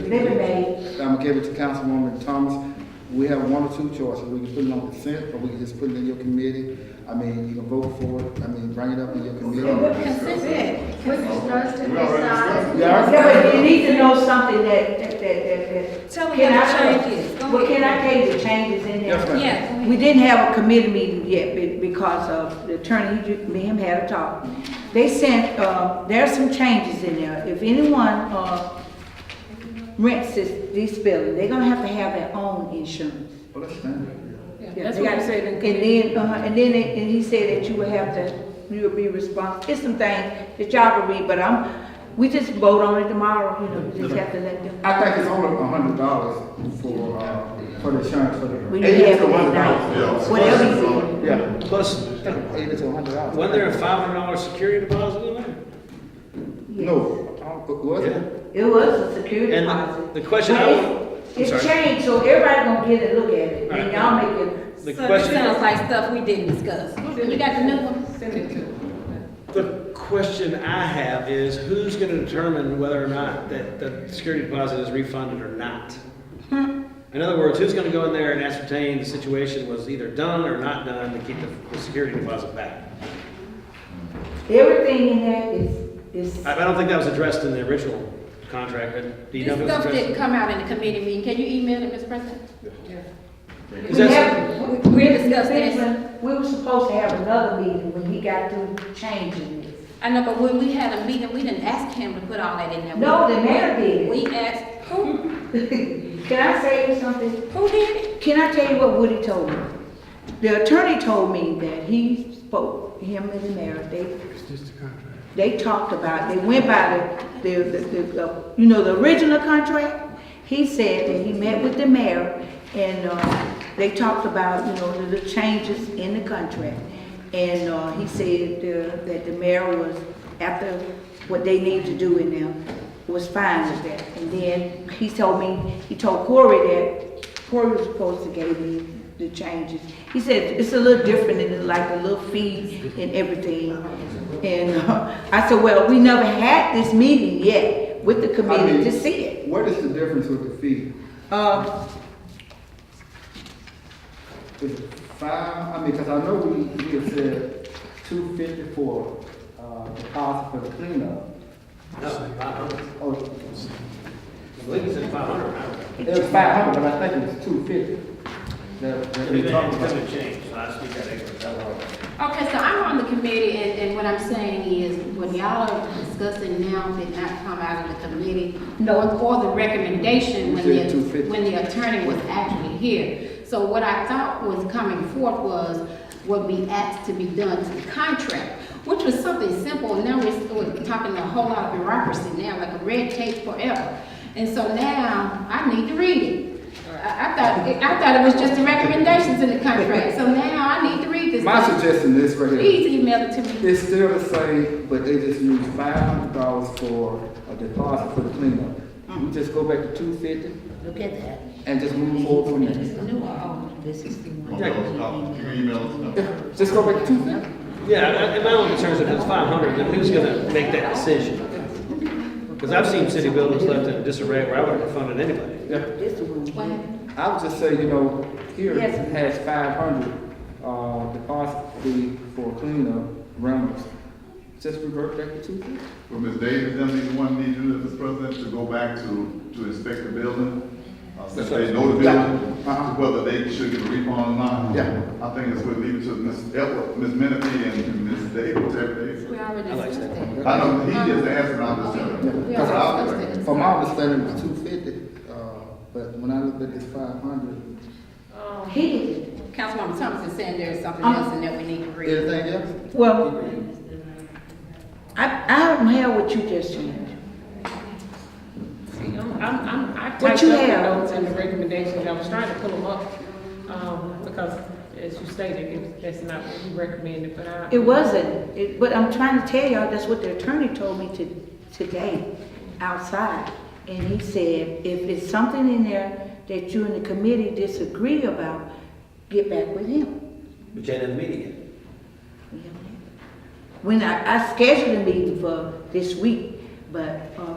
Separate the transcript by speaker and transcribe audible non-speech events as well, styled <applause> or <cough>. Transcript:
Speaker 1: Living Bay,
Speaker 2: I'm gonna give it to Councilwoman Thomas. We have one or two choices. We can put it on consent, or we can just put it in your committee. I mean, you can vote for it. I mean, bring it up in your
Speaker 3: We're
Speaker 2: committee.
Speaker 3: consistent, we're just us to
Speaker 4: We already
Speaker 3: decide.
Speaker 2: Yeah, I-
Speaker 1: yeah, but you need to know something that, that, that, that.
Speaker 5: Tell me
Speaker 1: Can
Speaker 5: how
Speaker 1: I-
Speaker 5: to change it. Go
Speaker 1: Well, can
Speaker 5: ahead.
Speaker 1: I tell you the changes in there?
Speaker 2: Yes, ma'am.
Speaker 5: Yeah, go ahead.
Speaker 1: We didn't have a committee meeting yet be- because of the attorney, he ju- me and him had a talk. They sent, uh, there are some changes in there. If anyone, uh, rents this, this building, they're gonna have to have their own insurance.
Speaker 2: Well, that's standard.
Speaker 1: Yeah,
Speaker 5: That's
Speaker 1: they
Speaker 5: what
Speaker 1: got-
Speaker 5: we said in
Speaker 1: And
Speaker 5: committee.
Speaker 1: then, uh, and then, it- and he said that you would have to, you would be responsible, it's some things that y'all can read, but I'm, we just vote on it tomorrow, you know, we just have to let them.
Speaker 2: I think it's only a hundred dollars for, uh, for the insurance for the.
Speaker 1: We need to have it at
Speaker 4: Yeah.
Speaker 1: night, whatever you do.
Speaker 2: Yeah,
Speaker 6: Plus,
Speaker 2: eighty to a hundred dollars.
Speaker 6: wasn't there a five hundred dollar security deposit in there?
Speaker 2: No, uh, was it?
Speaker 1: It was a security
Speaker 6: And
Speaker 1: deposit.
Speaker 6: the question
Speaker 1: But
Speaker 6: I
Speaker 1: it's-
Speaker 6: would- I'm
Speaker 1: It's
Speaker 6: sorry.
Speaker 1: changed, so everybody gonna get a look at it, and
Speaker 6: Alright.
Speaker 1: y'all make it.
Speaker 6: The
Speaker 5: So this
Speaker 6: question-
Speaker 5: sounds like stuff we didn't discuss. You got the new one?
Speaker 6: The question I have is, who's gonna determine whether or not that the security deposit is refunded or not?
Speaker 5: Hmm.
Speaker 6: In other words, who's gonna go in there and ascertain the situation was either done or not done to keep the, the security deposit back?
Speaker 1: Everything in there is, is,
Speaker 6: I, I don't think that was addressed in the original contract, but do you know
Speaker 5: This
Speaker 6: if it was
Speaker 5: stuff didn't
Speaker 6: addressed?
Speaker 5: come out in the committee meeting. Can you email it, Ms. President?
Speaker 6: Is
Speaker 1: we
Speaker 6: that,
Speaker 1: have,
Speaker 5: we-
Speaker 1: we
Speaker 5: we
Speaker 1: discussed
Speaker 5: discussed
Speaker 1: this, we were supposed to have another meeting when he got through changing this.
Speaker 5: I know, but when we had a meeting, we didn't ask him to put all that in there.
Speaker 1: No, the mayor did it.
Speaker 5: We asked, who,
Speaker 1: <laughs> Can I say you something?
Speaker 5: who did it?
Speaker 1: Can I tell you what Woody told me? The attorney told me that he spoke, him and the mayor, they. They talked about, they went by the, the, the- the, uh, you know, the original contract. He said that he met with the mayor and, uh, they talked about, you know, the, the changes in the contract. And, uh, he said, uh, that the mayor was, after what they need to do in there, was fine with that. And then he told me, he told Corey that Corey was supposed to give me the changes. He said, it's a little different and it's like a little fee and everything. And uh, I said, well, we never had this meeting yet with the committee to see it.
Speaker 2: What is the difference with the fee?
Speaker 1: Uh,
Speaker 2: Is it five, I mean, because I know we, we had said two fifty for, uh, deposit for the cleanup.
Speaker 6: no, five hundred,
Speaker 2: Oh,
Speaker 6: I believe it said five hundred.
Speaker 2: It was five hundred, but I think it was two fifty. That, that we talked about.
Speaker 6: change, so I speak that English.
Speaker 3: Okay, so I'm on the committee, and, and what I'm saying is, when y'all are discussing now, did not come out of the committee, nor, or the recommendation when
Speaker 2: We did two
Speaker 3: the,
Speaker 2: fifty.
Speaker 3: when the attorney was actually here. So what I thought was coming forth was what we asked to be done to the contract, which was something simple, and now we're, we're talking a whole lot of bureaucracy now, like a red tape forever. And so now, I need to read it. I, I thought, I thought it was just the recommendations in the contract, so now I need to read this.
Speaker 2: My suggestion is right here,
Speaker 3: Please email it to me.
Speaker 2: it's still the same, but they just use five hundred dollars for a deposit for the cleanup. We just go back to two fifty
Speaker 7: Hmm. Look at that.
Speaker 2: and just move forward from
Speaker 7: This is
Speaker 2: there.
Speaker 7: the new or old? This is the one.
Speaker 4: Email us, uh, you email us,
Speaker 2: Yeah, Just go back to two fifty.
Speaker 6: Yeah, and- and my only concern is if it's five hundred, then who's gonna make that decision? Because I've seen city buildings left in disarray where I wouldn't have funded anybody.
Speaker 7: This the one.
Speaker 3: What happened?
Speaker 2: I would just say, you know, here
Speaker 1: Yes.
Speaker 2: has five hundred, uh, deposit fee for cleanup rounds. Just revert back to two fifty.
Speaker 4: well, Ms. Davis, them be the one need you, Mr. President, to go back to, to inspect the building, uh, since they know the building, uh,
Speaker 2: Uh-huh.
Speaker 4: whether they should get a refund or not.
Speaker 2: Yeah.
Speaker 4: I think it's what leave it to Ms. Edward, Ms. Menefee and Ms. Davis, every day.
Speaker 3: We already
Speaker 6: I like
Speaker 3: discussed
Speaker 6: that.
Speaker 3: that.
Speaker 4: I know, he just answered, I'm just telling you.
Speaker 3: We
Speaker 2: Cause
Speaker 3: already discussed
Speaker 2: I,
Speaker 3: that.
Speaker 2: from my understanding, it was two fifty, uh, but when I looked at this five hundred,
Speaker 1: he did,
Speaker 3: Councilwoman Thomas is saying there's something
Speaker 1: Um,
Speaker 3: else and that we need to read.
Speaker 2: anything else?
Speaker 1: well, I, I don't have what you just changed.
Speaker 8: See, I'm, I'm, I'm- I
Speaker 1: What
Speaker 8: typed
Speaker 1: you
Speaker 8: up the
Speaker 1: have?
Speaker 8: notes and the recommendations, I was trying to pull them up, um, because as you stated, it- that's not what we recommended, but I.
Speaker 1: It wasn't, it, but I'm trying to tell y'all, that's what the attorney told me to, today, outside. And he said, if it's something in there that you and the committee disagree about, get back with him.
Speaker 6: But you had a meeting.
Speaker 1: When I, I scheduled a meeting for this week, but, uh,